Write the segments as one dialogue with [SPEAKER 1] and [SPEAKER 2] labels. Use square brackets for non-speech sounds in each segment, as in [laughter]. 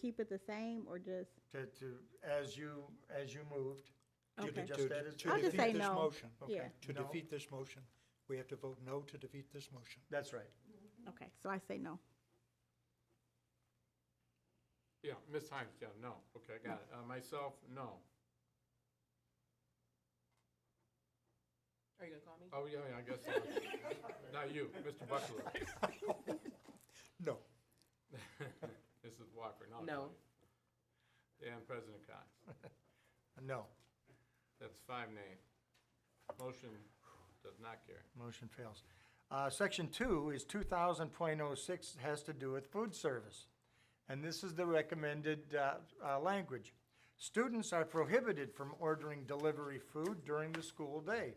[SPEAKER 1] Keep it the same or just,
[SPEAKER 2] to, to, as you, as you moved,
[SPEAKER 1] Okay.
[SPEAKER 2] to just
[SPEAKER 1] To-
[SPEAKER 2] that is.
[SPEAKER 1] to I'll just
[SPEAKER 2] okay,
[SPEAKER 1] say
[SPEAKER 3] To defeat this
[SPEAKER 1] no.
[SPEAKER 3] motion,
[SPEAKER 1] Yeah.
[SPEAKER 3] to
[SPEAKER 2] No.
[SPEAKER 3] defeat this motion, we have to vote no to defeat this motion.
[SPEAKER 2] That's right.
[SPEAKER 1] okay, so I say no.
[SPEAKER 4] Yeah, Ms. Hines, yeah, no. Okay, I got it. Uh, myself, no.
[SPEAKER 5] Are you gonna call me?
[SPEAKER 4] Oh, yeah, yeah, I guess so. [laughs] Not you, Mr. [laughs] Buckley.
[SPEAKER 3] No.
[SPEAKER 4] Mrs. Walker, no.
[SPEAKER 5] No.
[SPEAKER 4] And President Cox.
[SPEAKER 2] No,
[SPEAKER 4] That's five nay. Motion does not carry.
[SPEAKER 2] motion fails. Uh, section two is two thousand point oh six, has to do with food service. And this is the recommended, uh, uh, language. Students are prohibited from ordering delivery food during the school day,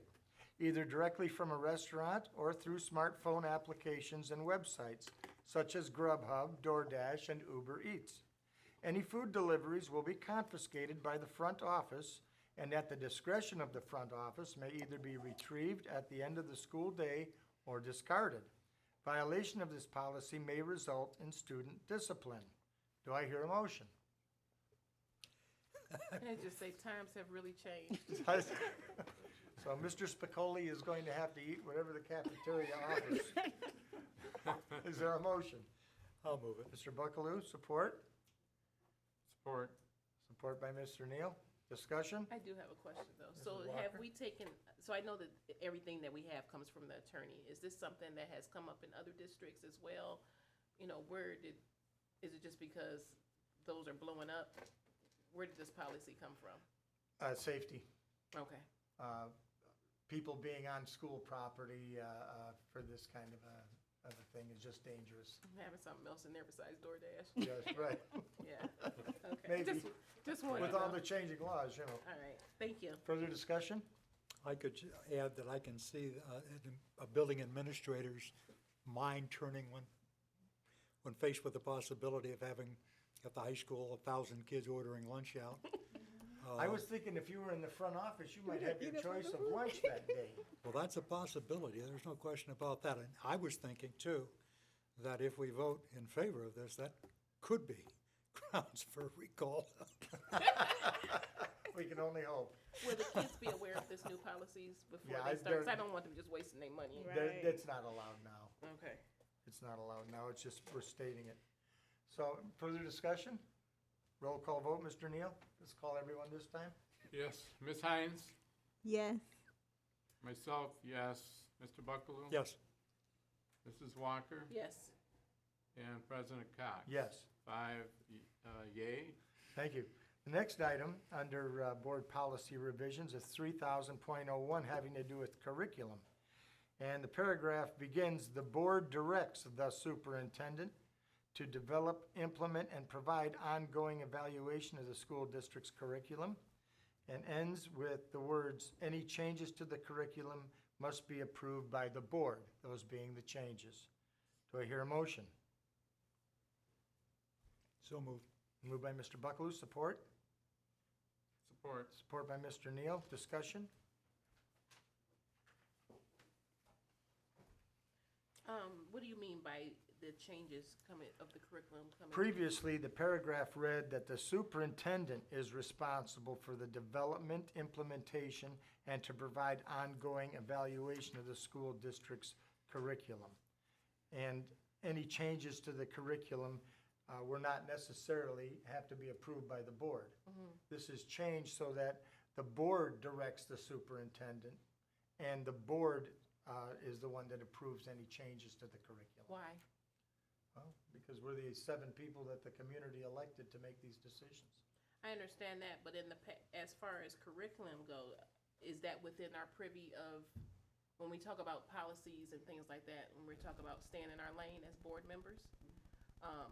[SPEAKER 2] either directly from a restaurant or through smartphone applications and websites such as Grubhub, DoorDash, and Uber Eats. Any food deliveries will be confiscated by the front office and at the discretion of the front office may either be retrieved at the end of the school day or discarded. Violation of this policy may result in student discipline. Do I hear a motion?
[SPEAKER 5] And just say times have really changed.
[SPEAKER 2] So Mr. Spicoli is going to have to eat whatever the cafeteria offers. Is there a motion?
[SPEAKER 3] I'll move it.
[SPEAKER 2] Mr. Buckaloo, support?
[SPEAKER 4] Support.
[SPEAKER 2] Support by Mr. Neal. Discussion?
[SPEAKER 5] I do have a question though. So
[SPEAKER 2] Mrs.
[SPEAKER 5] have
[SPEAKER 2] Walker?
[SPEAKER 5] we taken, so I know that everything that we have comes from the attorney. Is this something that has come up in other districts as well? You know, where did, is it just because those are blowing up? Where did this policy come from?
[SPEAKER 2] Uh, safety.
[SPEAKER 5] Okay.
[SPEAKER 2] uh, people being on school property uh, uh, for this kind of a, of a thing is just [laughs] dangerous.
[SPEAKER 5] I'm having something else in there besides
[SPEAKER 2] [laughs]
[SPEAKER 5] DoorDash.
[SPEAKER 2] Yes, right.
[SPEAKER 5] Yeah. Okay.
[SPEAKER 2] Maybe.
[SPEAKER 5] Just, just wanted
[SPEAKER 2] With
[SPEAKER 5] to know.
[SPEAKER 2] all
[SPEAKER 5] All
[SPEAKER 2] the changing laws, you know.
[SPEAKER 5] right. Thank you.
[SPEAKER 2] Further discussion?
[SPEAKER 3] [laughs] I could ju- add that I can see uh, an- a building administrator's mind turning when, when faced with the possibility of having, at the high school, a thousand kids ordering lunch
[SPEAKER 1] [laughs]
[SPEAKER 3] out. Uh,
[SPEAKER 2] I was thinking if you were in the front office, you might have your choice [laughs] of lunch that day.
[SPEAKER 3] Well, that's a possibility, there's no question about that. And I was thinking too, that if we vote in favor of this, that could be [laughs] grounds for recall.
[SPEAKER 2] We can only hope.
[SPEAKER 5] Will the kids be aware of this new policies before
[SPEAKER 2] Yeah, I-
[SPEAKER 5] they start? 'Cause I
[SPEAKER 2] they're-
[SPEAKER 5] don't want them just wasting their money.
[SPEAKER 1] Right.
[SPEAKER 2] That- That's not allowed now.
[SPEAKER 5] Okay.
[SPEAKER 2] It's not allowed now, it's just we're stating it. So further discussion? Roll call vote, Mr. Neal? Let's call everyone this time.
[SPEAKER 4] Yes, Ms. Hines,
[SPEAKER 1] Yes,
[SPEAKER 4] myself, yes. Mr. Buckaloo?
[SPEAKER 3] Yes,
[SPEAKER 4] Mrs. Walker?
[SPEAKER 5] Yes.
[SPEAKER 4] And President Cox?
[SPEAKER 2] Yes.
[SPEAKER 4] Five y- uh, yay,
[SPEAKER 2] Thank you. The next item under uh, board policy revisions is three thousand point oh one having to do with curriculum. And the paragraph begins, the board directs the superintendent to develop, implement, and provide ongoing evaluation of the school district's curriculum. And ends with the words, any changes to the curriculum must be approved by the board, those being the changes. Do I hear a motion?
[SPEAKER 3] so moved.
[SPEAKER 2] Moved by Mr. Buckaloo, support?
[SPEAKER 4] support.
[SPEAKER 2] Support by Mr. Neal. Discussion?
[SPEAKER 5] Um, what do you mean by the changes coming, of the curriculum coming?
[SPEAKER 2] Previously, the paragraph read that the superintendent is responsible for the development, implementation, and to provide ongoing evaluation of the school district's curriculum. And any changes to the curriculum uh, were not necessarily have to be approved by the board. This is changed so that the board directs the superintendent, and the board uh, is the one that approves any changes to the curriculum.
[SPEAKER 5] Why?
[SPEAKER 2] Well, because we're the seven people that the community elected to make these decisions.
[SPEAKER 5] I understand that, but in the, pa- as far as curriculum go, is that within our privy of, when we talk about policies and things like that, when we're talking about staying in our lane as board members? Um,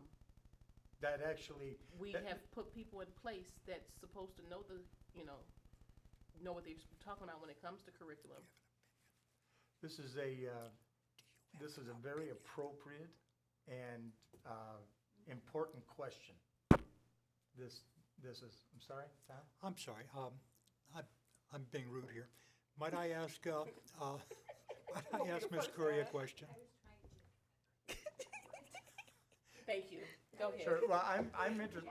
[SPEAKER 2] That actually,
[SPEAKER 5] we
[SPEAKER 2] That-
[SPEAKER 5] have put people in place that's supposed to know the, you know, know what they're talking about when it comes to curriculum.
[SPEAKER 2] this is a, uh, this is a very appropriate and uh, important question. This, this is, I'm sorry, Tom?
[SPEAKER 3] I'm sorry, um, I'm, I'm being rude here. Might I ask, uh, uh, [laughs] might I ask Ms. Curry a question?
[SPEAKER 5] Thank you. Go ahead.
[SPEAKER 2] Sure, well, I'm, I'm interested,